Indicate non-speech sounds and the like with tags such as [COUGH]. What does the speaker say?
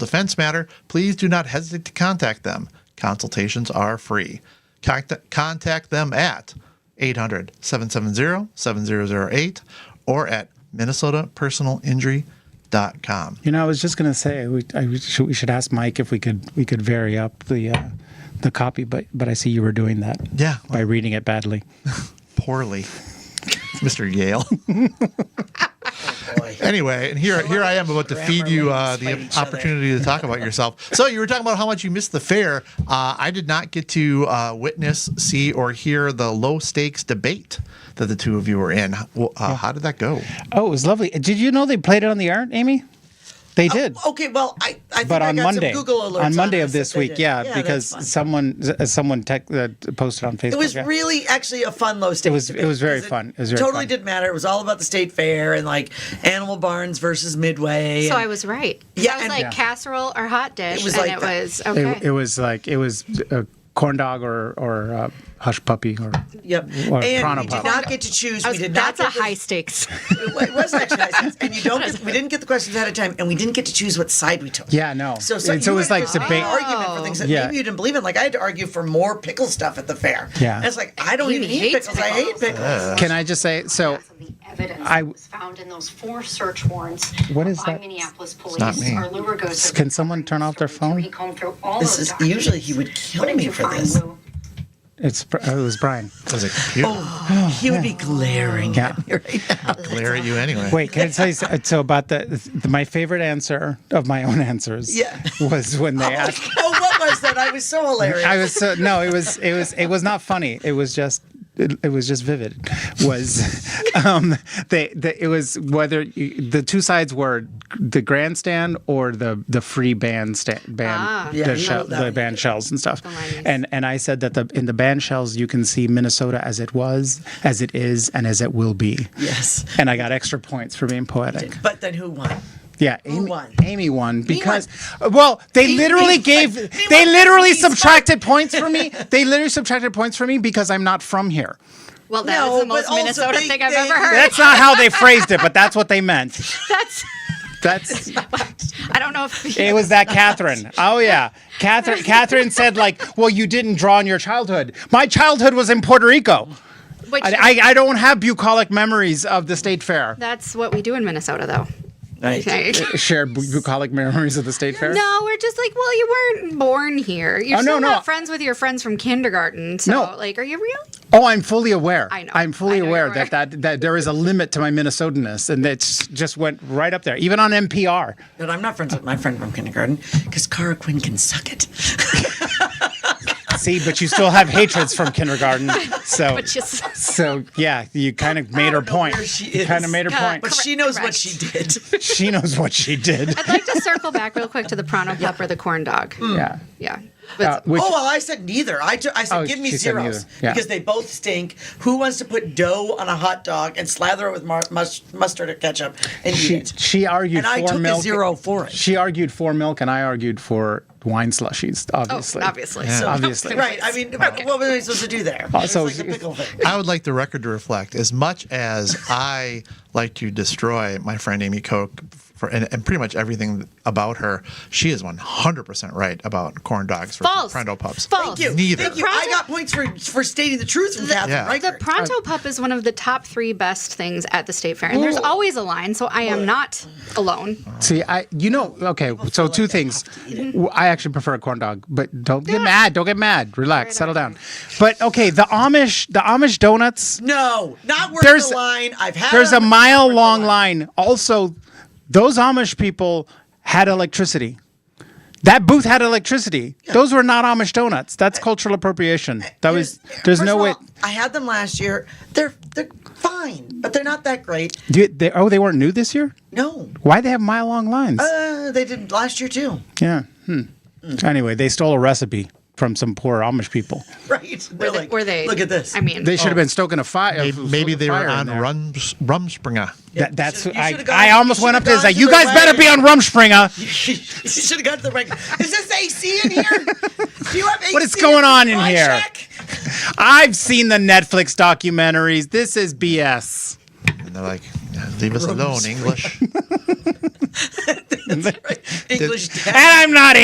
defense matter, please do not hesitate to contact them. Consultations are free. Contact, contact them at 800 770 7008 or at minnesotapersonalinjury.com. You know, I was just gonna say we, I, we, should, we should ask Mike if we could we could vary up the uh, the copy, but but I see you were doing that. Yeah. by reading it badly. Poorly. [LAUGHS] Mr. Yale. anyway, and here here I am about to feed you uh, the opportunity to talk about yourself. So you were talking about how much you missed the fair. Uh, I did not get to uh, witness, see, or hear the low stakes debate that the two of you were in. Well, uh, How did that go? Oh, it was lovely. Did you know they played it on the art, Amy? They did. Okay, well, I, Oh, I think but I on got Monday, some Google alerts on Monday us of that this they week, did. yeah, that's fine. because someone uh, someone tech, uh, posted on Facebook. It was yeah. really actually a fun low stakes. was- it debate, was very 'cause fun. It was very totally fun. didn't matter. It was all about the state fair and like Animal Barns versus Midway. So and- I was right. Yeah, I was and- like Yeah. casserole or hot dish, It was and like it that. was okay. It, it was like it was a corn dog or or uh, hush puppy or Yep. Or and Prana we Pop. did not get to choose. I was- we did that's a not get high to- [LAUGHS] stakes. It was actually high stakes. And you [LAUGHS] don't get, we didn't get the questions ahead of time and we didn't get to choose what side we took. yeah no. So, so, it's always you had like to debate. argument for things that Yeah. maybe you didn't believe in. Like I had to argue for more pickle stuff at the fair. Yeah. And it's like I don't He even eat hates pickles. I hate pickles. pickles. Can I just say so? the evidence I- that was found in those four search warrants What is by that? Minneapolis police not me. are Luergo's Can someone turn off their phone? Comb through all This those is- documents. usually he would kill What did me you for find, this. Lou? It's it was Brian. Does it computer He would be glaring Yeah. [LAUGHS] at me right now. glare at you anyway? Wait, can I tell you so, so about the, the my favorite answer of my own answers? Yeah. was when they asked. oh, what was that? I was so hilarious. I was so no, it was it was it was not funny. It was just. It, it was just vivid. Was [LAUGHS] um, they, they? It was whether you, the two sides were the grandstand or the the free band stand band the, Ah. Yeah, you shell, know that the one. band shells and stuff. nineties. And and I said that the in the band shells you can see Minnesota as it was, as it is, and as it will be. yes. And I got extra points for being poetic. But then who won? Yeah, Amy won? Amy won because well, they Amy literally won. gave Amy they won. literally She's subtracted points for [LAUGHS] me. They literally subtracted points for me because I'm not from here. Well, that No, was the but most also Minnesota they- thing I've they- ever [LAUGHS] heard. That's not how they phrased it, but that's what they meant. That's. [LAUGHS] That's I don't know if it was that Catherine. Oh yeah. Catherine Catherine said like, well, you didn't draw on your childhood. My childhood was in Puerto Rico. [LAUGHS] Which, I, I, I don't have bucolic memories of the state fair. that's what we do in Minnesota, though. Okay. Shared bu- bucolic memories of the state fair. No, we're just like, well, you weren't born here. You're Oh, no, still no. not friends with your friends from kindergarten. So, No. like, are you really? Oh, I'm fully aware. I know. I'm fully I know aware you are. that, that that there is a limit to my Minnesotanness, and it's just went right up there, even on NPR. But I'm not friends with my friend from kindergarten because Cara Quinn can suck it. See, but you still have hatreds from [LAUGHS] kindergarten, so But just [LAUGHS] so yeah, you kind of made her know point. where she You kind of is. made her Yeah, point. But Correct, she knows what correct. she did. She knows what she did. [LAUGHS] I'd like to circle back real quick to the Prono Pup or the corn dog. Hmm. Yeah. Yeah. Uh, [LAUGHS] But which, oh, well, I said neither. I, ju- I said, Oh, give me she said zeros neither. Yeah. because they both stink. Who wants to put dough on a hot dog and slather it with mar- mus- mustard or ketchup and eat she it? she argued And for I took a milk. zero for it. She argued for milk, and I argued for wine slushies. Oh, Obviously, obviously. Yeah. So- obviously. Right. I mean, what were we supposed to do there? It's so- like the pickle thing. I would like the record to reflect as much as I like to destroy my friend Amy Koch for, and, and pretty much everything about her, she is 100% right about corn dogs for False. Prendo pups. Thank False. you. Neither. Thank you. I got points for, for stating the truth from Catherine. Yeah. Right? The Pronto Pup is one of the top three best things at the state fair. And there's always a line, so I am not alone. See, I you know okay. So two things. W- I actually prefer a corn dog, but don't get mad. Don't get mad. Relax. Right, settle right, down. But okay, the Amish the Amish donuts. no, not worth There's- the line. I've had. There's it a on the- mile long line. Also, those Amish people had electricity. That booth had electricity. Those were not Amish donuts. That's cultural appropriation. That was Uh, Here's- there's first no of way. all, I had them last year. They're they're fine, but they're not that great. Do you- they, oh, they weren't new this year. No, Why they have mile long lines? uh, mm. they did last year too. [LAUGHS] yeah. Hmm. Anyway, they stole a recipe from some poor Amish people. Right? They're Were they, like, were they- Look at this. I mean, They should have been stoking a fire. Maybe, Oh. maybe they fire were in on there. Rums, Rumspringer. That, that's You should- you I, should've gone- I you almost went should've up to this. gone Like, to you the guys better be on wagon." Rumspringer. [LAUGHS] you should have gone to the right. [LAUGHS] Is this AC in here? Do you have AC? What is going on in my here? check? I've seen the Netflix documentaries. This is BS. And they're like, leave us alone, English. English. And I'm not